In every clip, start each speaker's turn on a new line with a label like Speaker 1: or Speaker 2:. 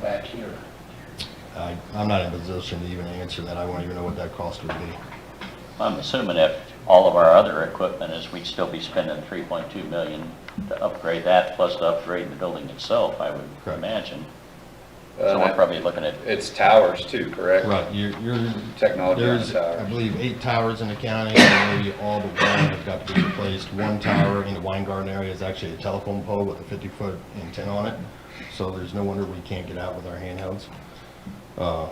Speaker 1: back here?
Speaker 2: I, I'm not in a position to even answer that. I won't even know what that cost would be.
Speaker 3: I'm assuming if all of our other equipment is, we'd still be spending 3.2 million to upgrade that, plus to upgrade the building itself, I would
Speaker 2: Correct.
Speaker 3: imagine. So we're
Speaker 4: Uh,
Speaker 3: probably looking at,
Speaker 4: It's towers too, correct?
Speaker 2: Right, you're, you're.
Speaker 4: Technology on the
Speaker 2: There's,
Speaker 4: towers.
Speaker 2: I believe, eight towers in the county, and maybe all but one have got to be replaced. One tower in the wine garden area is actually a telephone pole with a fifty-foot antenna on it, so there's no wonder we can't get out with our handhelds. Uh,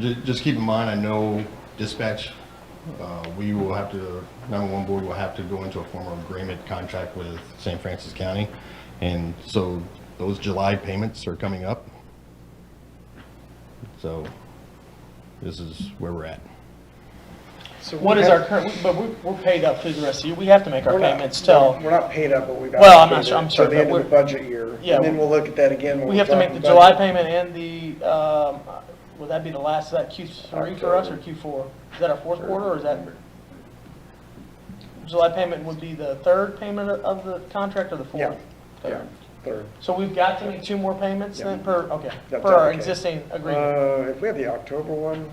Speaker 2: ju- just keep in mind, I know dispatch, uh, we will have to, nine-one-one board will have to go into a formal agreement contract with St. Francis County, and so those July payments are coming up. So, this is where we're at.
Speaker 5: So
Speaker 6: What
Speaker 5: we
Speaker 6: is
Speaker 5: have-
Speaker 6: our current, but we- we're paid up through the rest of the year. We have to make our
Speaker 5: we're not-
Speaker 6: payments till,
Speaker 5: We're not paid up, but we've.
Speaker 6: Well, I'm
Speaker 5: allocated
Speaker 6: not sure- I'm
Speaker 5: till
Speaker 6: sorry,
Speaker 5: the
Speaker 6: but
Speaker 5: end of the
Speaker 6: we're-
Speaker 5: budget year,
Speaker 6: Yeah.
Speaker 5: and then we'll look at that again when
Speaker 6: we
Speaker 5: we're
Speaker 6: have to make the
Speaker 5: talking
Speaker 6: July
Speaker 5: budget.
Speaker 6: payment and the, um, would that be the last, is that Q3 for us or Q4? Is that our fourth quarter or is that? July payment would be the third payment of- of the contract or the
Speaker 5: Yeah,
Speaker 6: fourth?
Speaker 5: yeah, third.
Speaker 6: So we've got to make two more payments then per, okay,
Speaker 5: That's
Speaker 6: per our
Speaker 5: okay.
Speaker 6: existing agreement?
Speaker 5: Uh, if we have the October one,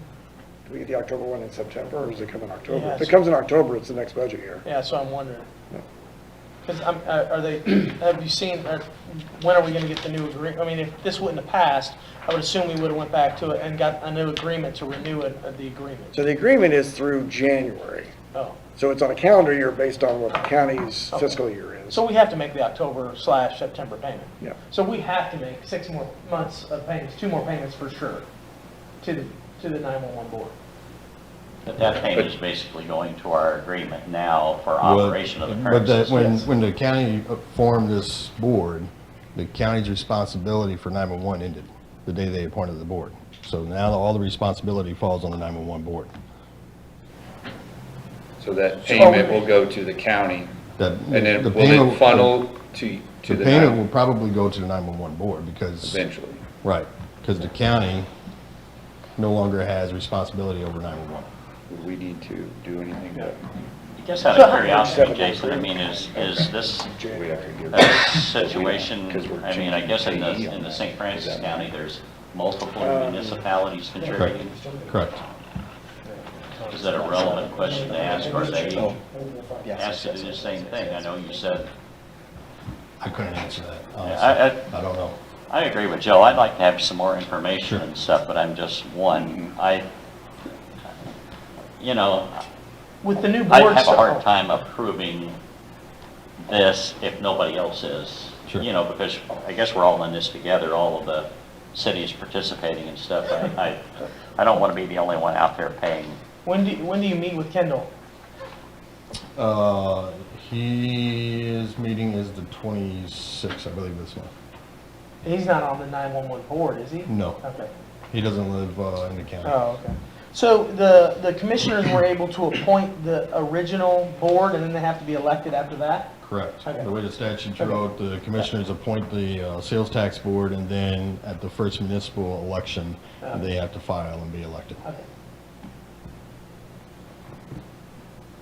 Speaker 5: do we get the October one in September, or does it come in October?
Speaker 6: Yeah,
Speaker 5: If it
Speaker 6: it's-
Speaker 5: comes in October, it's the next budget year.
Speaker 6: Yeah, so I'm wondering. Because I'm, uh, are they, have you seen, uh, when are we going to get the new agreement? I mean, if this wouldn't have passed, I would assume we would have went back to it and got a new agreement to renew it, uh, the agreement.
Speaker 5: So the agreement is through January,
Speaker 6: Oh,
Speaker 5: so it's on a calendar year based on what the county's
Speaker 6: Okay.
Speaker 5: fiscal year is.
Speaker 6: Oh. so we have to make the October slash September payment.
Speaker 5: Yeah.
Speaker 6: So we have to make six more months of payments, two more payments for sure, to the, to the 911 board.
Speaker 3: but that payment is basically going to our agreement now for
Speaker 2: Well,
Speaker 3: operation of the
Speaker 2: But
Speaker 3: current
Speaker 2: the- when,
Speaker 3: system.
Speaker 2: when the county formed this board, the county's responsibility for 911 ended the day they appointed the board. So now all the responsibility falls on the 911 board.
Speaker 4: So that payment will go to the county, and then will it funnel to, to
Speaker 2: The
Speaker 4: the
Speaker 2: payment will
Speaker 4: town
Speaker 2: probably go to the 911 board because,
Speaker 4: eventually?
Speaker 2: right, because the county no longer has responsibility over 911.
Speaker 4: Would we need to do anything to?
Speaker 3: Just out of curiosity, Jason, I mean, is, is this
Speaker 4: We have to give-
Speaker 3: a situation,
Speaker 4: 'Cause we're
Speaker 3: I mean, I guess in the,
Speaker 4: changing
Speaker 3: in the
Speaker 4: KE
Speaker 3: St. Francis
Speaker 4: on that. Um,
Speaker 3: County, there's multiple municipalities contributing.
Speaker 2: Correct.
Speaker 3: Is that a relevant question to ask, or they
Speaker 1: Yes,
Speaker 3: asked to do the same thing? I know you said
Speaker 2: I couldn't answer that,
Speaker 3: I-
Speaker 2: honestly. I don't know.
Speaker 3: I agree with Joe, I'd like to have some more information and stuff, but I'm just one, I, you know,
Speaker 6: With the new board.
Speaker 3: I have a
Speaker 6: stuff-
Speaker 3: hard time approving this if nobody else is.
Speaker 2: Sure.
Speaker 3: You know, because I guess we're all in this together, all of the cities participating and stuff. I, I I don't want to be the only one out there paying.
Speaker 6: When do, when do you meet with Kendall?
Speaker 2: Uh, his meeting is the 26th, I believe, this month.
Speaker 6: He's not on the 911 board, is he?
Speaker 2: No.
Speaker 6: Okay.
Speaker 2: He doesn't live uh, in the county.
Speaker 6: Oh, okay. So the, the commissioners were able to appoint the original board and then they have to be elected after that?
Speaker 2: Correct.
Speaker 6: Okay.
Speaker 2: The way the statute
Speaker 6: Okay.
Speaker 2: wrote, the commissioners appoint the uh, sales tax board, and then at the first municipal election,
Speaker 6: Okay.
Speaker 2: they have to file and be elected.
Speaker 6: Okay.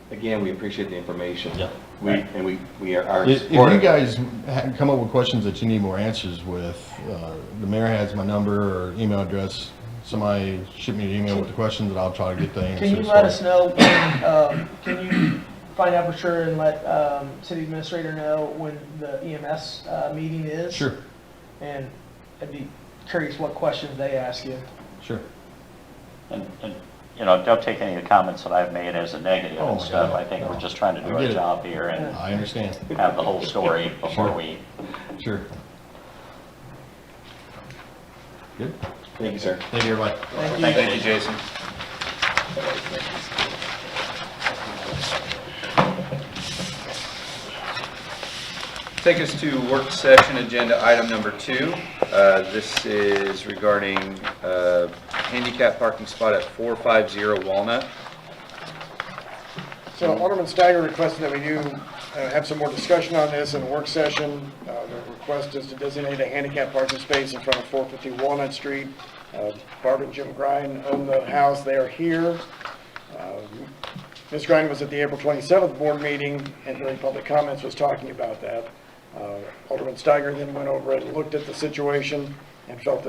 Speaker 1: Again, we appreciate the information.
Speaker 3: Yeah.
Speaker 1: We, and we, we are- are.
Speaker 2: If if you
Speaker 1: supportive.
Speaker 2: guys ha- come up with questions that you need more answers with, uh, the mayor has my number or email address. Somebody shoot me an email with the questions, and I'll try to get the answers.
Speaker 6: Can you
Speaker 2: for
Speaker 6: let us know, when, um, can you find out for sure and let um, city administrator know when the EMS uh, meeting is?
Speaker 2: Sure,
Speaker 6: And I'd be curious what questions they ask you.
Speaker 2: sure.
Speaker 3: And, and, you know, don't take any of the comments that I've made as a negative
Speaker 2: Oh, my
Speaker 3: and stuff.
Speaker 2: God,
Speaker 3: I think
Speaker 2: no.
Speaker 3: we're just trying to
Speaker 2: I
Speaker 3: do
Speaker 2: get
Speaker 3: our
Speaker 2: it.
Speaker 3: job here and
Speaker 2: I understand.
Speaker 3: have the whole story before we
Speaker 2: Sure. Good.
Speaker 1: Thank you, sir.
Speaker 2: Thank you, everybody.
Speaker 6: Thank you.
Speaker 4: Thank you, Jason. Take us to work session agenda item number two. Uh, This is regarding uh, handicap parking spot at 450 Walnut.
Speaker 5: So Alderman Steiger requested that we do uh, have some more discussion on this in a work session. Uh, The request is to designate a handicap parking space in front of 450 Walnut Street. Uh, Barb and Jim Grine own the house, they are here. Um, Ms. Grine was at the April 27th board meeting, and during public comments was talking about that. Uh, Alderman Steiger then went over and looked at the situation and felt that